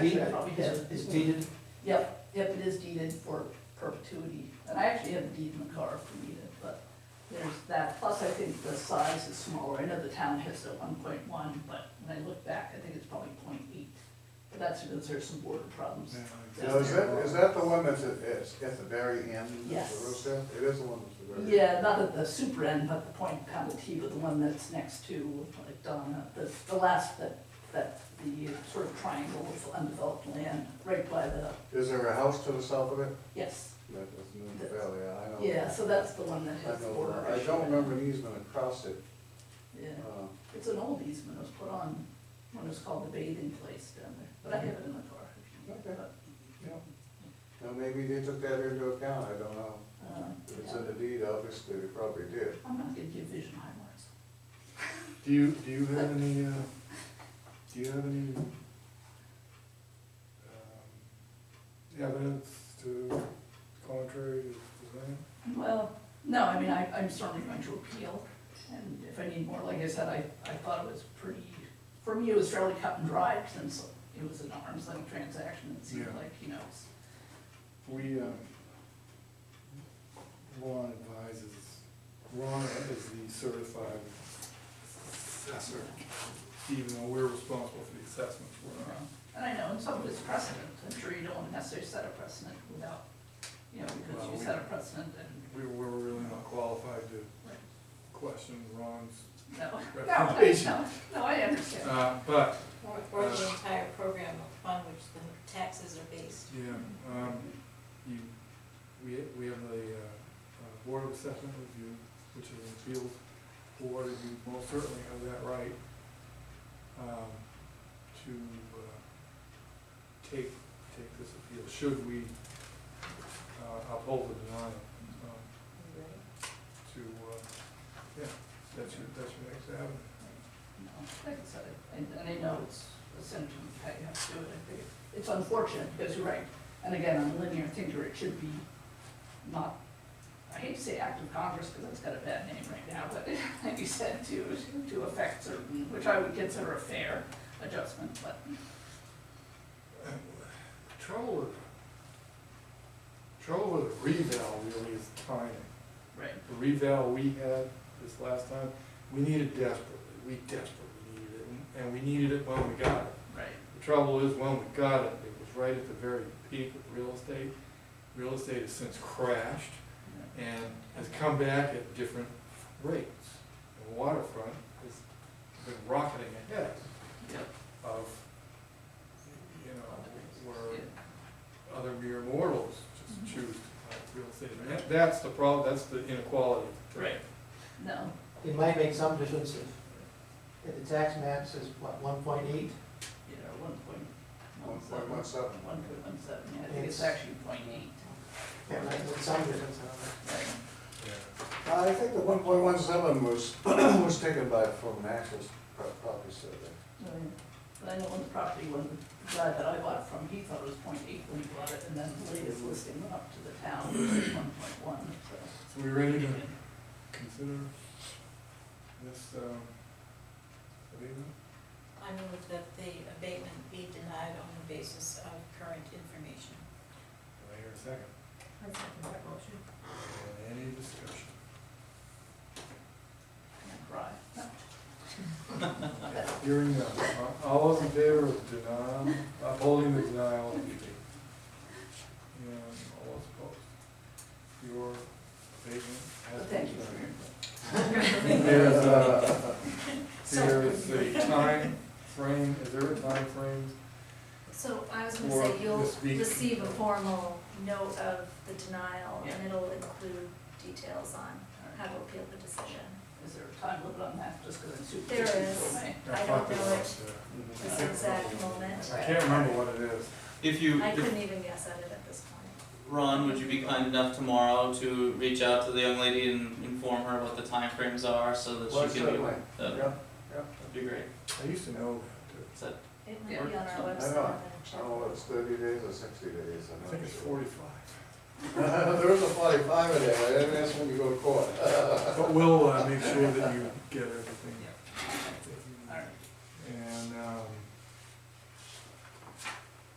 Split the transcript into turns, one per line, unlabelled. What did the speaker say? deed?
actually, I probably have.
It's deeded?
Yep, yep, it is deeded for perpetuity, and I actually have a deed in the car if we need it, but there's that, plus I think the size is smaller, I know the town has it at one point one, but when I look back, I think it's probably 0.8. But that's because there's some border problems.
Now, Oh, is that, is that the one that's at, it's at the very end of the
Yes.
roof there? It is the one that's the very.
Yeah, not at the super end, but the point kind of T, but the one that's next to, like Donna, the, the last, that, that, the sort of triangle of undeveloped land, right by the,
Is there a house to the south of it?
yes,
That is in the valley, I know.
yeah, so that's the one that
Oh. I
has the
know
border.
where- I
issue.
don't remember an easement across it.
Yeah,
Uh,
it's an old easement, it was put on when it was called the bathing place down there, but I have it in the car. if you need it,
Okay. yeah. Now, maybe they took that into account, I don't know.
but, um,
If It's
yeah.
in the deed, obviously, they probably did.
I'm not gonna give vision high marks.
Do you, do you have any, uh, do you have any, um, evidence to contrary to the plan?
Well, no, I mean, I, I'm certainly going to appeal, and if I need more, like I said, I, I thought it was pretty, for me, it was fairly cut and dried, since it was an arm's length transaction, it seemed
Yeah.
like, you know, it's-
We, um, Ron advises, Ron is the certified assessor, even though we're responsible for the assessments, we're not.
and I know, and some of it's precedent, I'm sure you don't necessarily set a precedent without, you know, because
Well,
you
we-
set a precedent and,
We were really not qualified to
Right.
question Ron's,
no, no, I-
Recommendation.
no, no, I understand.
uh, but,
Or, or the entire program upon which the taxes are based.
yeah, um, you, we, we have the, uh, uh, Board of Assessment Review, which is an appeals board, and you most certainly have that right, um, to, uh, take, take this appeal, should we, uh, uphold the denial, um, to, uh, yeah, that's your, that's your next avenue.
No, Like I said, I- and, and I know it's a symptom of how you have to do it, I think it's unfortunate, because you're right, and again, I'm a linear thinker, it should be not, I hate to say act of Congress, because that's got a bad name right now, but like you said, to, to affect certain, which I would consider a fair adjustment, but,
Trouble with, trouble with a revale really is timing.
right,
The revale we had this last time, we needed desperately, we desperately needed it, and- and we needed it when we got it.
right,
The trouble is, when we got it, it was right at the very peak of real estate. Real estate has since crashed
yeah.
and has come back at different rates. The waterfront has been rocketing ahead
Yep,
of, you know, where
yeah,
other mere mortals just choose uh, real estate. And that- that's the problem, that's the inequality.
Right. no,
It might make some difference if, if the tax map says, what, one point eight?
you know, one point
One
one
point
seven.
one seven.
One point one seven, yeah, I think it's
Yes.
actually point eight,
It might make some difference, I don't know.
right,
Uh, I think the one point one seven was, was taken by, from an actual pro- property survey.
Oh, yeah. But I know on the property, when the guy that I bought from, he thought it was point eight when he bought it, and then the latest listing went up to the town, which is one point one, so.
So we ready to consider this um, abatement?
I move that the abatement be denied on the basis of current information.
Do I hear a second? Any discussion?
Right.
Hearing none. Uh, All those in favor of denial, upholding the denial of the abatement? And all those opposed? Your abatement has
But thank you
been denied.
for your.
There's a, there's a time frame, is there a time frame?
So I was
Or
gonna say, you'll
this week.
receive a formal note of the denial,
Yeah.
and it'll include details on how
input.
to appeal the decision.
Is there a time limit on that, just because I'm super.
There
busy till
is.
May?
I don't know it
it.
this exact moment.
I can't remember what it is.
If you,
I
if-
couldn't even guess at it at this point.
Ron, would you be kind enough tomorrow to reach out to the young lady and inform her what the timeframes are so that
Well,
she can be
certainly.
aware?
Uh,
That'd
Yeah,
be great.
I used to know that,
Is that-
It might be on
Yeah.
our
I
website.
know.
I'm gonna
I
check.
don't know if it's thirty days or sixty days, I'm
I
not
think it's
sure.
forty-five.
There is a forty-five in there, I didn't ask when you go to court.
But we'll uh, make sure that you get everything.
All right,
And, um,